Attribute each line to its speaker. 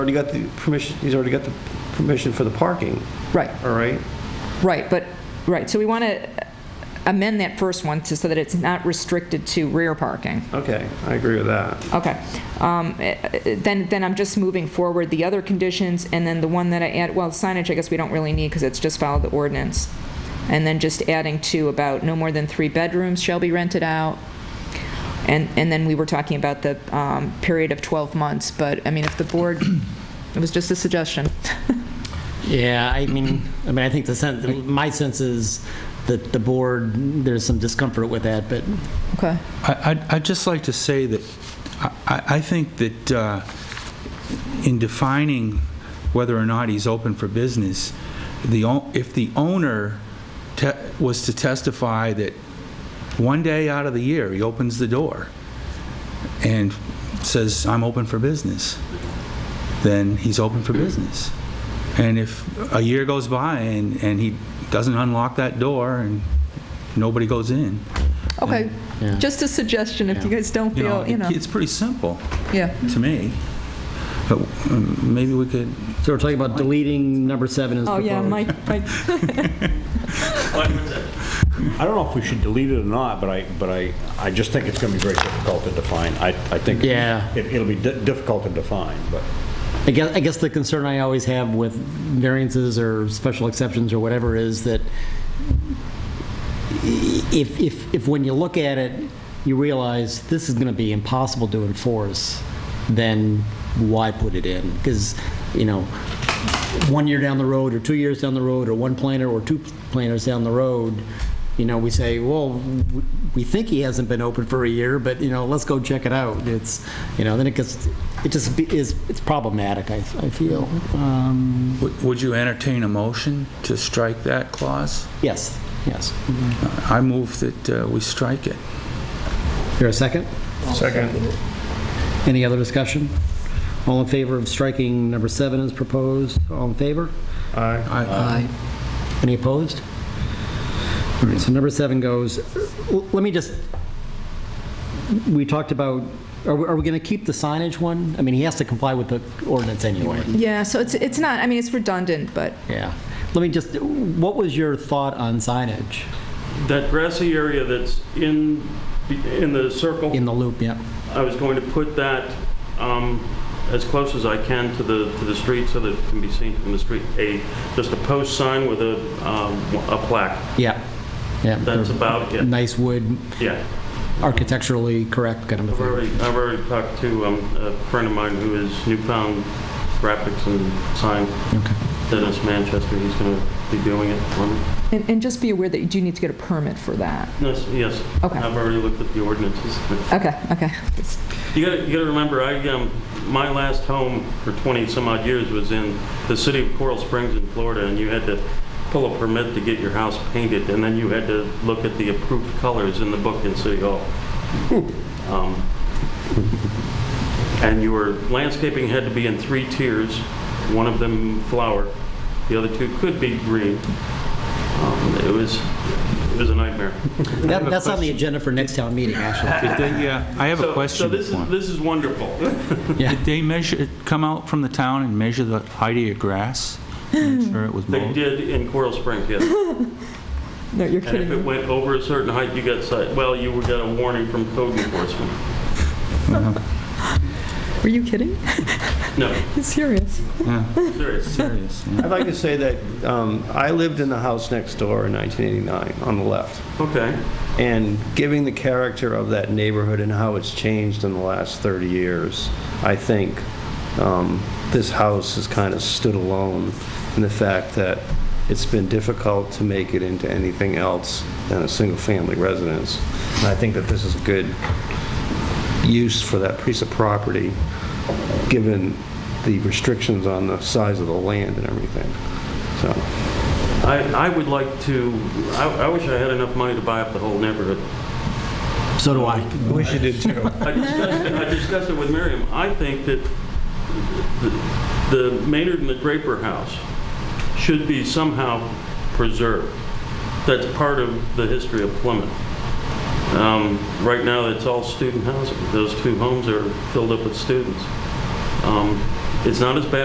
Speaker 1: Already got the permission, he's already got the permission for the parking,
Speaker 2: Right,
Speaker 1: all right?
Speaker 2: right, but, right, so we want to amend that first one to, so that it's not restricted to rear parking.
Speaker 1: Okay, I agree with that.
Speaker 2: Okay. Um, eh, eh, Then, then I'm just moving forward the other conditions, and then the one that I add, well, signage, I guess we don't really need, because it's just follow the ordinance. And then just adding to about no more than three bedrooms shall be rented out. And, and then we were talking about the um, period of 12 months, but, I mean, if the board, it was just a suggestion.
Speaker 3: Yeah, I mean, I mean, I think the sense, my sense is that the board, there's some discomfort with that, but
Speaker 2: Okay.
Speaker 4: I- I'd I'd just like to say that I- I I think that uh, in defining whether or not he's open for business, the, o- if the owner te- was to testify that one day out of the year, he opens the door and says, "I'm open for business," then he's open for business. And if a year goes by and and he doesn't unlock that door and nobody goes in,
Speaker 2: Okay,
Speaker 3: Yeah.
Speaker 2: just a suggestion, if you guys don't
Speaker 4: you know,
Speaker 2: feel, you know,
Speaker 4: it- it's pretty simple
Speaker 2: yeah.
Speaker 4: to me. But um, maybe we could,
Speaker 3: so we're talking about deleting number seven as
Speaker 2: Oh,
Speaker 3: proposed.
Speaker 2: yeah, Mike, Mike,
Speaker 5: I don't know if we should delete it or not, but I, but I, I just think it's going to be very difficult to define. I, I think.
Speaker 3: Yeah.
Speaker 5: it- It'll be di- difficult to define, but.
Speaker 3: I guess, I guess the concern I always have with variances or special exceptions or whatever is that if, if, if when you look at it, you realize this is going to be impossible to enforce, then why put it in? Because, you know, one year down the road, or two years down the road, or one planter or two planters down the road, you know, we say, well, w- we think he hasn't been open for a year, but, you know, let's go check it out. It's, you know, then it gets, it just be- is, it's problematic, I, I feel. Um,
Speaker 4: would- would you entertain a motion to strike that clause?
Speaker 3: Yes, yes.
Speaker 4: I move that uh, we strike it.
Speaker 3: Here a second?
Speaker 1: Second.
Speaker 3: Any other discussion? All in favor of striking number seven as proposed? All in favor?
Speaker 1: Aye.
Speaker 4: I-
Speaker 3: Any opposed? All right, so number seven goes, l- let me just, we talked about, are we, are we going to keep the signage one? I mean, he has to comply with the ordinance anyway.
Speaker 2: yeah, so it's, it's not, I mean, it's redundant, but
Speaker 3: Yeah. Let me just, what was your thought on signage
Speaker 6: That grassy area that's in, in the circle,
Speaker 3: in the loop? Yeah.
Speaker 6: I was going to put that um, as close as I can to the, to the street so that it can be seen from the street. A, just a post sign with a, um, a plaque.
Speaker 3: Yeah. Yeah.
Speaker 6: That's about it.
Speaker 3: Nice wood,
Speaker 6: Yeah.
Speaker 3: architecturally correct kind of a
Speaker 6: I've
Speaker 3: thing.
Speaker 6: already, I've already talked to um, a friend of mine who is newfound graphics and sign,
Speaker 3: Okay.
Speaker 6: Dennis Manchester. He's going to be doing it for me.
Speaker 2: And, and just be aware that you do need to get a permit for that.
Speaker 6: Yes, yes.
Speaker 2: Okay.
Speaker 6: I've already looked at the ordinances.
Speaker 2: Okay, okay.
Speaker 6: You gotta, you gotta remember, I, um, my last home for 20 some odd years was in the city of Coral Springs in Florida, and you had to pull a permit to get your house painted, and then you had to look at the approved colors in the book in City Hall. Um, And your landscaping had to be in three tiers, one of them flower, the other two could be green. Um, It was, it was a nightmare.
Speaker 3: That- That's on the agenda for next town meeting, actually.
Speaker 4: Did they, uh, I have a
Speaker 6: So- So
Speaker 4: question.
Speaker 6: this
Speaker 4: for
Speaker 6: is,
Speaker 4: him.
Speaker 6: this is wonderful.
Speaker 4: Did they measure, come out from the town and measure the height of your grass? Make sure it was
Speaker 6: They
Speaker 4: mowed?
Speaker 6: did in Coral Springs, yes.
Speaker 2: No, you're
Speaker 6: And if it
Speaker 2: kidding.
Speaker 6: went over a certain height, you got, cite- well, you would get a warning from code enforcement.
Speaker 2: Were you kidding?
Speaker 6: No,
Speaker 2: He's serious.
Speaker 4: Yeah,
Speaker 6: serious.
Speaker 4: serious, yeah.
Speaker 1: I'd like to say that um, I lived in the house next door in 1989, on the left.
Speaker 6: Okay,
Speaker 1: And giving the character of that neighborhood and how it's changed in the last 30 years, I think um, this house has kind of stood alone in the fact that it's been difficult to make it into anything else than a single-family residence. And I think that this is a good use for that piece of property, given the restrictions on the size of the land and everything. So,
Speaker 6: I, I would like to, I, I wish I had enough money to buy up the whole neighborhood.
Speaker 3: So do I.
Speaker 1: wish you did too.
Speaker 6: I discussed, it- I discussed it with Miriam. I think that the- the Maynard and the Draper House should be somehow preserved. That's part of the history of Plymouth. Um, Right now, it's all student housing. Those two homes are filled up with students. Um, It's not as bad